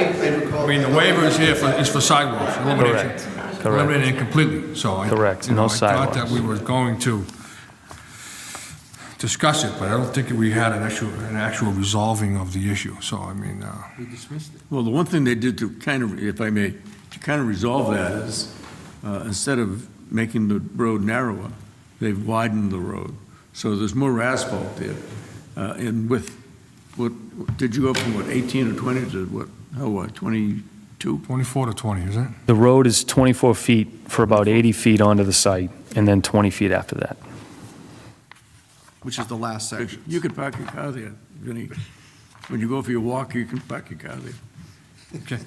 think I recall. I mean, the waiver is here for, is for sidewalks, elimination. Correct, correct. Eliminating it completely, so. I- Correct, you know, no I thought sidewalks. that we were going to discuss it, but I don't think we had an actual, an actual resolving of the issue, so I mean, uh, Well, the one thing they did to kind of, if I may, to kind of resolve that is, uh, instead of making the road narrower, they've widened the road. So there's more asphalt there. Uh, And with, what, did you go from what, 18 or 20 to what, how, what, 22? 24 to 20, is it? The road is 24 feet for about 80 feet onto the site, and then 20 feet after that. Which is the last section. You could park your car there, Vinny. When you go for your walk, you can park your car there. Okay.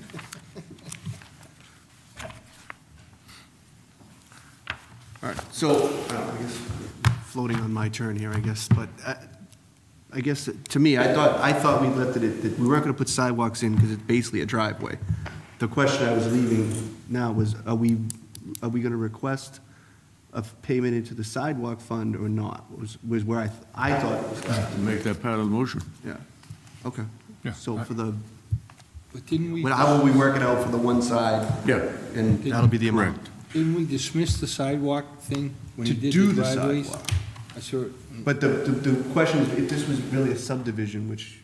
All right, so, I don't know, I guess, floating on my turn here, I guess, but I- I guess, to me, I thought, I thought we left it, at that we weren't going to put sidewalks in because it's basically a driveway. The question I was leaving now was, are we, are we going to request a payment into the sidewalk fund or not? Was, was where I, I thought it was going. Make that part of the motion. Yeah, okay. Yeah. So Uh, for the, But didn't we, but how will we work it out for the one side? Yeah. And that'll be the amount. didn't we dismiss the sidewalk thing when To you did do the the driveways? sidewalk. I saw, it. But the, the, the question is, if this was really a subdivision, which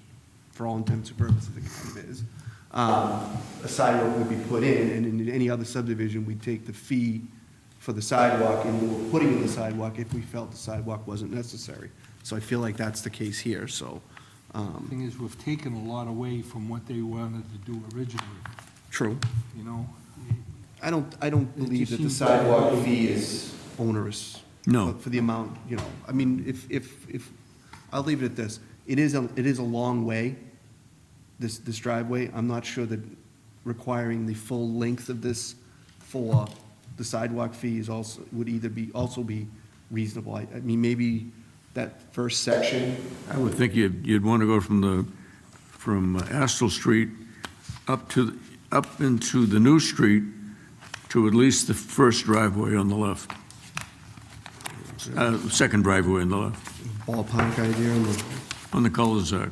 for all intents and purposes it kind of is, um, a sidewalk would be put in, and in any other subdivision, we'd take the fee for the sidewalk and we were putting in the sidewalk if we felt the sidewalk wasn't necessary. So I feel like that's the case here, so, the um, thing is, we've taken a lot away from what they wanted to do originally, true. you know? I don't, I don't believe that the seems- sidewalk fee is onerous. No. for- For the amount, you know, I mean, if, if, if, I'll leave it at this. It is, a it is a long way, this, this driveway. I'm not sure that requiring the full length of this for the sidewalk fee is also, would either be, also be reasonable. I, I mean, maybe that first section, I would think you'd, you'd want to go from the, from uh, Astle Street up to, the- up into the new street to at least the first driveway on the left. Uh, Second driveway on the left, ballpark idea, and the on the cul-de-sac.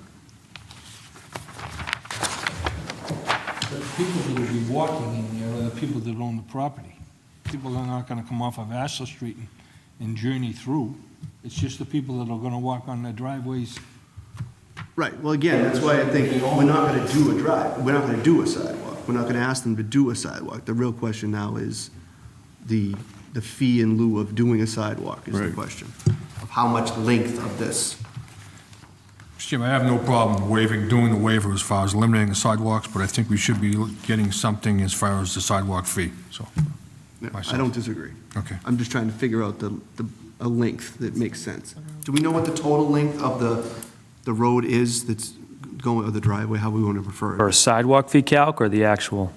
The people that would be walking in there are the people that own the property. People are not gonna come off of Astor Street and- and journey through. It's just the people that are gonna walk on the driveways. Right, well, again, that's why I think we're not gonna do a drive, we're not gonna do a sidewalk. We're not gonna ask them to do a sidewalk. The real question now is the, the fee in lieu of doing a sidewalk is the Right. question. Of how much length of this. Mr. Chairman, I have no problem waiving, doing the waiver as far as eliminating the sidewalks, but I think we should be getting something as far as the sidewalk fee, so. I don't disagree. Okay. I'm just trying to figure out the, the, a length that makes sense. Do we know what the total length of the, the road is that's going, or the driveway, how we wanna refer it? Or a sidewalk fee calc or the actual?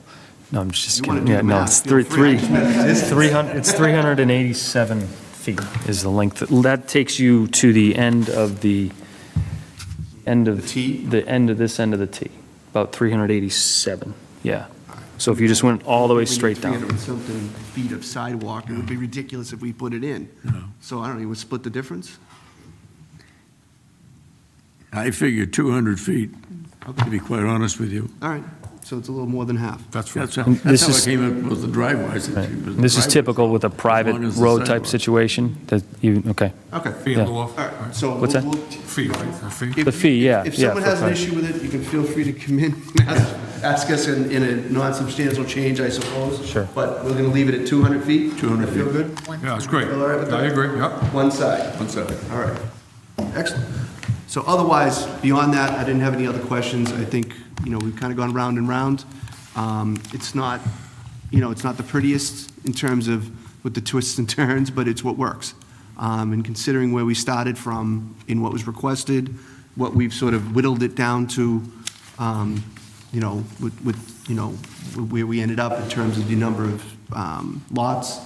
No, I'm just You wanna kidding. do Yeah, the no, math, it's feel three, free. three, it's 300, it's 387 feet is the length. That takes you to the end of the, end of. The T? The end of this end of the T, about 387, yeah. So if you just went all the way We need straight 300 down. and something feet of sidewalk, it would be ridiculous if we put it in. So I don't know, you would split the difference? I figure 200 feet, to be quite honest with you. All right, so it's a little more than half. That's right. That's how, that's This how I is- came up with the driveways. Right. This is typical with a private road type situation, that you, okay. Okay. Fee in Yeah. lieu All of, right, so. What's we'll- that? we'll- fee, right, a fee? if- The fee, if- yeah, If yeah, someone has an for- issue with it, you can feel free to come in, and ask- ask us in, in a non-substantial change, I suppose. Sure. But we're gonna leave it at 200 feet? 200 Feel feet. good? Yeah, it's great. Feel all right with I that? agree, yeah. One side. One second. All right, excellent. So otherwise, beyond that, I didn't have any other questions. I think, you know, we've kind of gone round and round. Um, It's not, you know, it's not the prettiest in terms of with the twists and turns, but it's what works. Um, And considering where we started from in what was requested, what we've sort of whittled it down to, um, you know, with, with, you know, where we ended up in terms of the number of um, lots,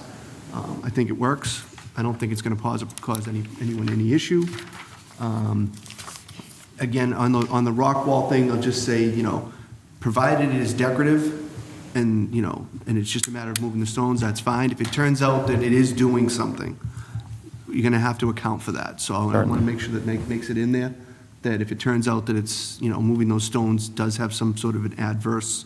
um, I think it works. I don't think it's going to cause, cause any, anyone any issue. Um, Again, on the, on the rock wall thing, I'll just say, you know, provided it is decorative and, you know, and it's just a matter of moving the stones, that's fine. If it turns out that it is doing something, you're going to have to account for that. So I want to make sure that make- makes it in there, that if it turns out that it's, you know, moving those stones does have some sort of an adverse